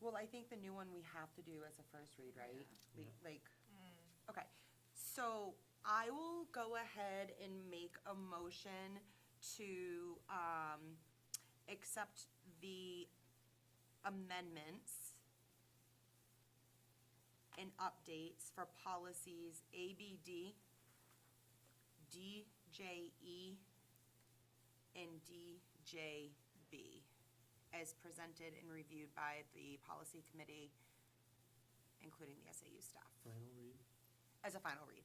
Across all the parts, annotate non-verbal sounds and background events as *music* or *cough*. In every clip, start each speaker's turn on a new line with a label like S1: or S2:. S1: Well, I think the new one we have to do as a first read, right?
S2: Yeah.
S1: Like- Like, okay, so I will go ahead and make a motion to, um, accept the amendments and updates for policies ABD, DJE, E, and DJB as presented and reviewed by the policy committee, including the SAU staff,
S2: Final read.
S1: as a final read.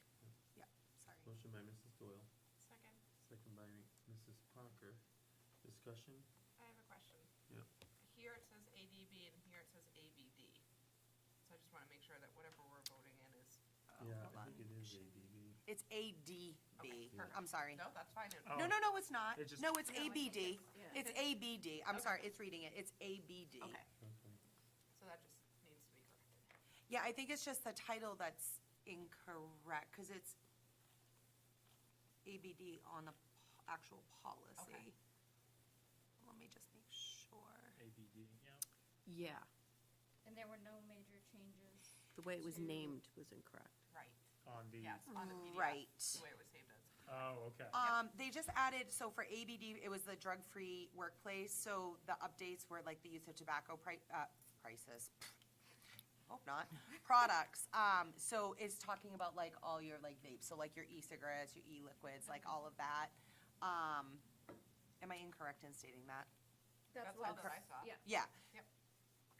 S1: Yep, sorry.
S2: Motion by Mrs. Doyle,
S3: Second,
S2: second by Mrs. Parker. Discussion?
S3: I have a question.
S2: Yep.
S3: Here it says ADB and here it says ABD. So I just want to make sure that whatever we're voting in is.
S1: Oh,
S2: Yeah,
S1: hold
S2: I
S1: on.
S2: think it is ADB.
S1: It's
S3: Okay,
S1: ADB,
S3: perfect.
S1: I'm sorry.
S3: No, that's fine.
S2: Oh.
S1: No, no, no, it's not.
S2: It just-
S1: No, it's
S3: No, I think
S1: ABD.
S3: it's-
S4: yeah.
S1: It's ABD. I'm
S3: Okay.
S1: sorry, it's reading it. It's ABD.
S3: Okay,
S2: Okay.
S3: so that just needs to be corrected.
S1: Yeah, I think it's just the title that's incorrect, because it's ABD on the po- actual policy.
S3: Okay.
S1: Let me just make sure.
S5: ABD. Yeah.
S4: Yeah,
S6: And there were no major changes.
S4: the way it was
S6: to-
S4: named was incorrect.
S3: Right,
S5: On the.
S3: yes, on the PDF.
S1: Right.
S3: The way it was saved as.
S5: Oh, okay.
S1: Um, they just added, so for ABD, it was the drug-free workplace, so the updates were like the use of tobacco pri- uh, prices. Hope
S3: *laughs*
S1: not, products, um, so it's talking about like all your like vapes, so like your e-cigarettes, your e-liquids, like all of that. Um, am I incorrect in stating that?
S3: That's
S6: what
S3: all that I saw.
S6: Yeah.
S1: Yeah,
S3: Yep,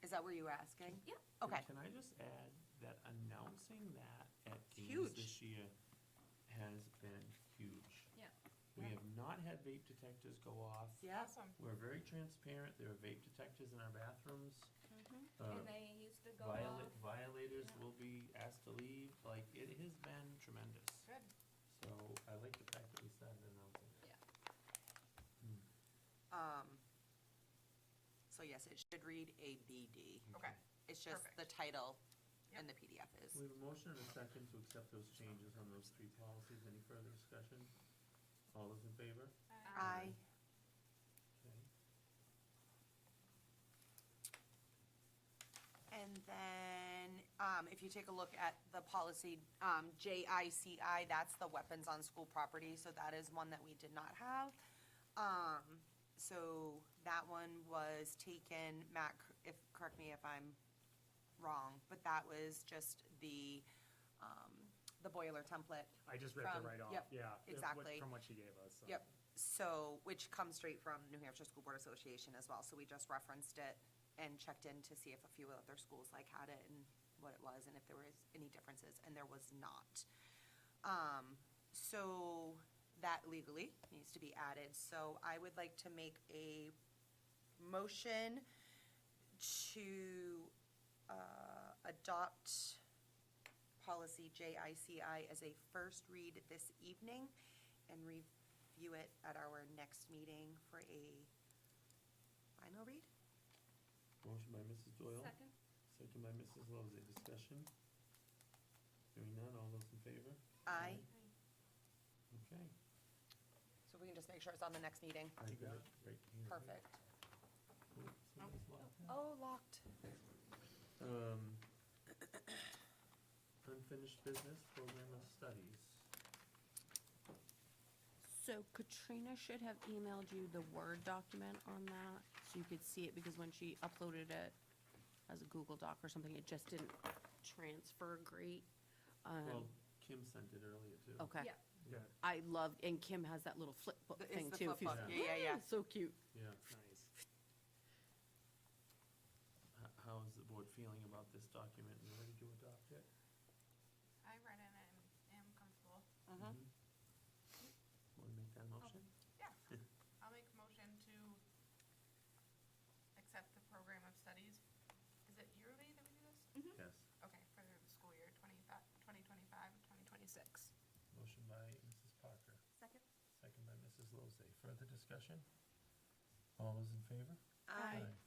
S1: is that where you were asking?
S6: Yeah.
S1: Okay,
S2: Can I just add that announcing that at games
S1: Huge.
S2: this year has been huge.
S6: Yeah.
S2: We have not had vape detectors go off.
S1: yeah,
S3: awesome.
S2: We're very transparent. There are vape detectors in our bathrooms. Uh,
S6: Mm-hmm. And they used to go
S2: Viola-
S6: off.
S2: Violators
S6: Yeah.
S2: will be asked to leave. Like, it has been tremendous.
S3: Good.
S2: So I like the fact that we started announcing it.
S6: Yeah.
S2: Hmm.
S1: um, so yes, it should read ABD.
S3: Okay.
S1: It's just
S3: Perfect.
S1: the title and the
S3: Yep.
S1: PDF is.
S2: We have a motion and a second to accept those changes on those three policies. Any further discussion? All those in favor?
S1: Aye.
S3: Uh,
S2: Okay.
S1: And then, um, if you take a look at the policy, um, JICI, that's the weapons on school property, so that is one that we did not have. Um, so that one was taken, Matt, cor- if, correct me if I'm wrong, but that was just the, um, the boiler template.
S5: I just ripped it
S1: From-
S5: right off,
S1: yep,
S5: yeah. it- what-
S1: exactly.
S5: From what she gave us. so.
S1: Yep, so, which comes straight from New Hampshire School Board Association as well, so we just referenced it and checked in to see if a few other schools like had it and what it was, and if there was any differences, and there was not. Um, so that legally needs to be added, so I would like to make a motion to, uh, adopt policy JICI as a first read this evening and review it at our next meeting for a final read?
S2: Motion by Mrs. Doyle.
S6: Second.
S2: Second by Mrs. Lozey. Discussion? Hearing none. All those in favor?
S1: Aye.
S2: Okay.
S1: So we can just make sure it's on the next meeting.
S2: I got it right here.
S1: Perfect.
S2: Oops, somebody's locked in.
S1: Oh, locked.
S2: Um, *coughs* unfinished business, program of studies.
S4: So Katrina should have emailed you the Word document on that, so you could see it, because when she uploaded it as a Google Doc or something, it just didn't transfer great. Um,
S2: Well, Kim sent it earlier too.
S4: Okay.
S6: Yeah.
S5: Yeah,
S4: I love, and Kim has that little flip book
S1: The- it's
S4: thing
S1: the
S4: too. if
S1: flip
S4: you-
S1: book, yeah, yeah, yeah.
S4: *laughs* So cute.
S2: Yeah.
S5: nice.
S2: H- How is the board feeling about this document and ready to adopt it?
S3: I read it and am comfortable.
S1: Uh-huh. Mm-hmm.
S2: Mhm. Mm-hmm. Wanna make that motion?
S3: Yeah, I'll make a motion to accept the program of studies. Is it yearly that we do this?
S2: Yes.
S1: Mm-hmm.
S3: Okay, for the school year 25 2025, 2026.
S2: Motion by Mrs. Parker,
S6: Second?
S2: second by Mrs. Lozey. Further discussion? All those in favor?
S1: Aye.
S2: Aye.